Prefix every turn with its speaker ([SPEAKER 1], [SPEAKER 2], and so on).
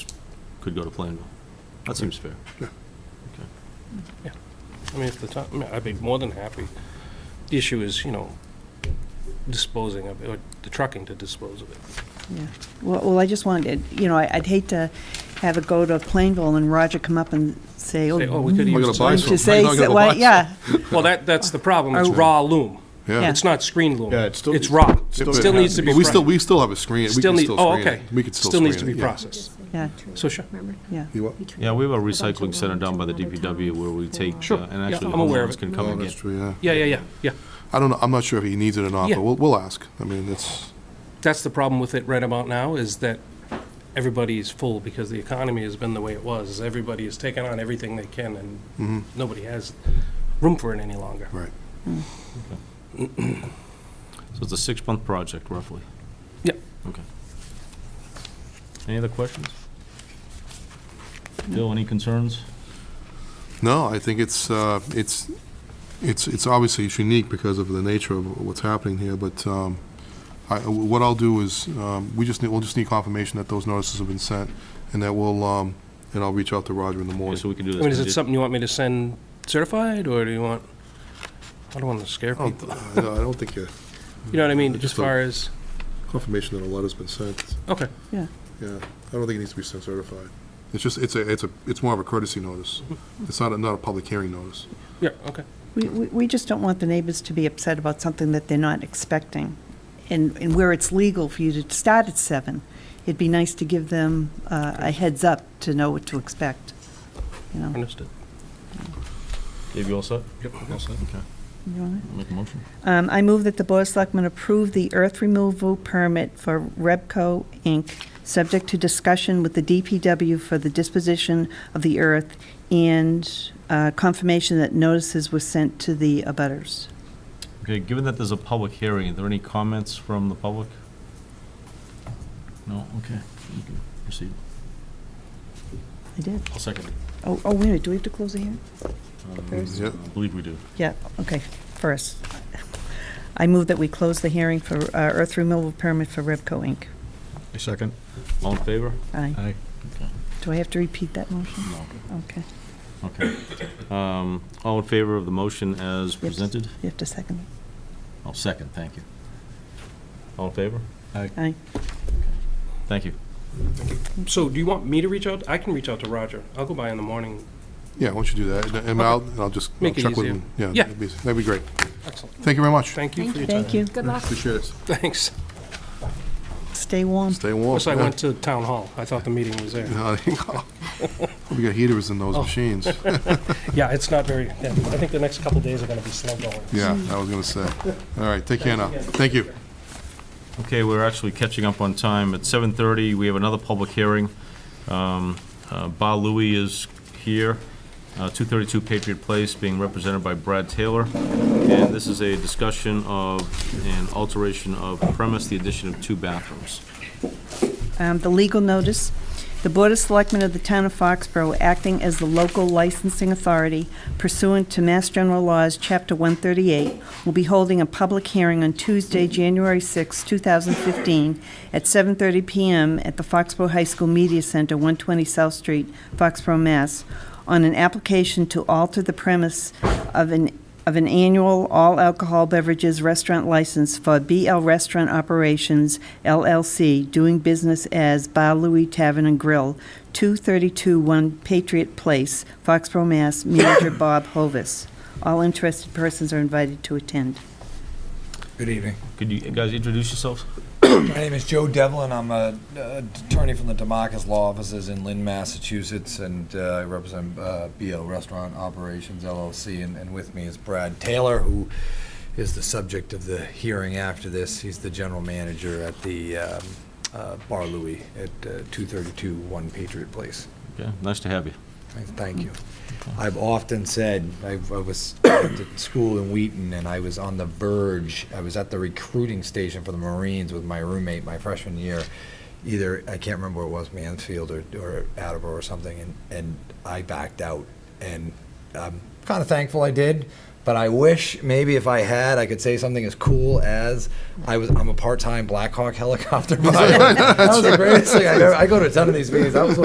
[SPEAKER 1] could go to Plainville. That seems fair.
[SPEAKER 2] Yeah.
[SPEAKER 1] Okay.
[SPEAKER 3] I mean, if the town, I mean, I'd be more than happy. The issue is, you know, disposing of it, or the trucking to dispose of it.
[SPEAKER 4] Yeah. Well, well, I just wanted, you know, I- I'd hate to have it go to Plainville and Roger come up and say,
[SPEAKER 3] Say, oh, we
[SPEAKER 4] oh,
[SPEAKER 3] could
[SPEAKER 2] We're
[SPEAKER 3] use.
[SPEAKER 2] gonna buy
[SPEAKER 4] why
[SPEAKER 2] some.
[SPEAKER 4] don't you say,
[SPEAKER 2] Why not gonna
[SPEAKER 4] why-
[SPEAKER 2] buy
[SPEAKER 4] yeah,
[SPEAKER 3] Well, that, that's the problem, it's
[SPEAKER 4] I-
[SPEAKER 3] raw loom.
[SPEAKER 2] Yeah.
[SPEAKER 3] It's not screen loom.
[SPEAKER 2] Yeah, it's still-
[SPEAKER 3] It's raw,
[SPEAKER 2] Still-
[SPEAKER 3] still needs to be.
[SPEAKER 2] But we still,
[SPEAKER 3] pro-
[SPEAKER 2] we still have a screen, we
[SPEAKER 3] Still
[SPEAKER 2] can
[SPEAKER 3] need,
[SPEAKER 2] still
[SPEAKER 3] oh,
[SPEAKER 2] screen
[SPEAKER 3] okay.
[SPEAKER 2] it. We could still
[SPEAKER 3] Still
[SPEAKER 2] screen it.
[SPEAKER 3] needs to be
[SPEAKER 2] yeah.
[SPEAKER 3] processed.
[SPEAKER 4] Yeah.
[SPEAKER 3] So sure.
[SPEAKER 4] yeah.
[SPEAKER 2] You what?
[SPEAKER 1] Yeah, we have a recycling center done by the DPW where we take,
[SPEAKER 3] Sure.
[SPEAKER 1] uh, and actually
[SPEAKER 3] Yeah,
[SPEAKER 1] the
[SPEAKER 3] I'm aware of
[SPEAKER 1] homeowners
[SPEAKER 3] it.
[SPEAKER 1] can come
[SPEAKER 2] Oh,
[SPEAKER 1] and
[SPEAKER 2] that's
[SPEAKER 1] get.
[SPEAKER 2] true, yeah.
[SPEAKER 3] Yeah, yeah, yeah, yeah.
[SPEAKER 2] I don't know, I'm not sure if he needs it or not,
[SPEAKER 3] Yeah.
[SPEAKER 2] but we'll, we'll ask. I mean, it's,
[SPEAKER 3] That's the problem with it right about now, is that everybody's full because the economy has been the way it was. Everybody is taking on everything they can,
[SPEAKER 2] Mm-hmm.
[SPEAKER 3] and nobody has room for it any longer.
[SPEAKER 2] right.
[SPEAKER 1] So it's a six-month project roughly.
[SPEAKER 3] Yeah.
[SPEAKER 1] Okay. Any other questions? Bill, any concerns?
[SPEAKER 2] No, I think it's, uh, it's, it's, it's obviously it's unique because of the nature of what's happening here, but, um, I, what I'll do is, um, we just need, we'll just need confirmation that those notices have been sent, and that we'll, um, and I'll reach out to Roger in the
[SPEAKER 1] Okay,
[SPEAKER 2] morning.
[SPEAKER 1] So we can do
[SPEAKER 3] I
[SPEAKER 1] this.
[SPEAKER 3] mean, is it
[SPEAKER 1] condi-
[SPEAKER 3] something you want me to send certified, or do you want, I don't want to scare
[SPEAKER 2] I
[SPEAKER 3] people.
[SPEAKER 2] don't, I don't think, uh,
[SPEAKER 3] You know what I mean, as
[SPEAKER 2] Oh, Just
[SPEAKER 3] far as,
[SPEAKER 2] confirmation that a letter's been sent.
[SPEAKER 3] okay,
[SPEAKER 2] Yeah, I don't think it needs to be sent certified. It's just, it's a, it's a, it's more of a courtesy notice. It's not, a not a public hearing notice.
[SPEAKER 3] yeah, okay.
[SPEAKER 4] We, we we just don't want the neighbors to be upset about something that they're not expecting. And, and where it's legal for you to start at seven, it'd be nice to give them uh, a heads up to know what to expect, you know.
[SPEAKER 3] Understood.
[SPEAKER 1] Dave, you all set?
[SPEAKER 3] Yep.
[SPEAKER 1] All set, okay.
[SPEAKER 4] You want it?
[SPEAKER 1] I'll Make a motion.
[SPEAKER 4] Um, I move that the Board of Selectmen approve the earth removal permit for Rebco Inc., subject to discussion with the DPW for the disposition of the earth and uh, confirmation that notices were sent to the abutters.
[SPEAKER 1] Okay, given that there's a public hearing, are there any comments from the public? No, okay, you can proceed.
[SPEAKER 4] I did.
[SPEAKER 1] I'll second it. Um,
[SPEAKER 4] Oh, oh, wait a minute, do we have to close the hearing? First?
[SPEAKER 2] Yep.
[SPEAKER 1] I believe we do.
[SPEAKER 4] Yeah, okay, first. I move that we close the hearing for uh, earth removal permit for Rebco Inc.
[SPEAKER 1] A second. All in favor?
[SPEAKER 4] Aye.
[SPEAKER 1] Aye. Okay.
[SPEAKER 4] Do I have to repeat that motion?
[SPEAKER 1] No.
[SPEAKER 4] Okay,
[SPEAKER 1] Okay. Um, All in favor of the motion as presented?
[SPEAKER 4] you have to second it.
[SPEAKER 1] I'll second, thank you. All in favor?
[SPEAKER 4] Aye.
[SPEAKER 1] Thank you.
[SPEAKER 3] So do you want me to reach out? I can reach out to Roger. I'll go by in the morning.
[SPEAKER 2] Yeah, why don't you do that, and- and I'll, and I'll just I'll
[SPEAKER 3] Make it
[SPEAKER 2] check with
[SPEAKER 3] easier.
[SPEAKER 2] him.
[SPEAKER 3] Yeah.
[SPEAKER 2] that'd be- That'd be great.
[SPEAKER 3] Excellent.
[SPEAKER 2] Thank you very much.
[SPEAKER 3] Thank you for your time.
[SPEAKER 4] Thank you.
[SPEAKER 5] Good luck.
[SPEAKER 2] Appreciate it.
[SPEAKER 3] Thanks.
[SPEAKER 4] Stay warm.
[SPEAKER 2] Stay warm.
[SPEAKER 3] Plus, I went to town hall. I thought the meeting was there.
[SPEAKER 2] Yeah. We got heaters in
[SPEAKER 3] Oh.
[SPEAKER 2] those machines.
[SPEAKER 3] Yeah, it's not very, yeah, I think the next couple days are going to be slow going.
[SPEAKER 2] Yeah, I was gonna say. All right, take care now. Thank you.
[SPEAKER 1] Okay, we're actually catching up on time. At 7:30, we have another public hearing. Um, uh, Ba Louie is here, uh, 232 Patriot Place, being represented by Brad Taylor. And this is a discussion of an alteration of premise, the addition of two bathrooms.
[SPEAKER 4] Um, The legal notice, the Board of Selectmen of the Town of Foxborough, acting as the local licensing authority pursuant to Mass General Laws, Chapter 138, will be holding a public hearing on Tuesday, January 6, 2015, at 7:30 PM at the Foxborough High School Media Center, 120 South Street, Foxborough, Mass, on an application to alter the premise of an of an annual all-alcohol beverages restaurant license for BL Restaurant Operations LLC, doing business as Bar Louie Tavern and Grill, 232 One Patriot Place, Foxborough, Mass., manager Bob Hovis. All interested persons are invited to attend.
[SPEAKER 6] Good evening.
[SPEAKER 1] Could you guys introduce yourselves?
[SPEAKER 6] My name is Joe Devlin. I'm a uh, attorney from the Demarcus Law Offices in Lynn, Massachusetts, and uh, I represent uh, BO Restaurant Operations LLC. And, and with me is Brad Taylor, who is the subject of the hearing after this. He's the general manager at the um, uh, Bar Louie at uh, 232 One Patriot Place.
[SPEAKER 1] Okay, nice to have you.
[SPEAKER 6] Thank you. I've often said, I I was at school in Wheaton, and I was on the verge, I was at the recruiting station for the Marines with my roommate my freshman year. Either, I can't remember what it was, Mansfield or or Attleboro or something, and and I backed out. And I'm kind of thankful I did, but I wish maybe if I had, I could say something as cool as, I was, I'm a part-time Black Hawk helicopter pilot. That was the greatest thing I ever, I go to a ton of these meetings. I was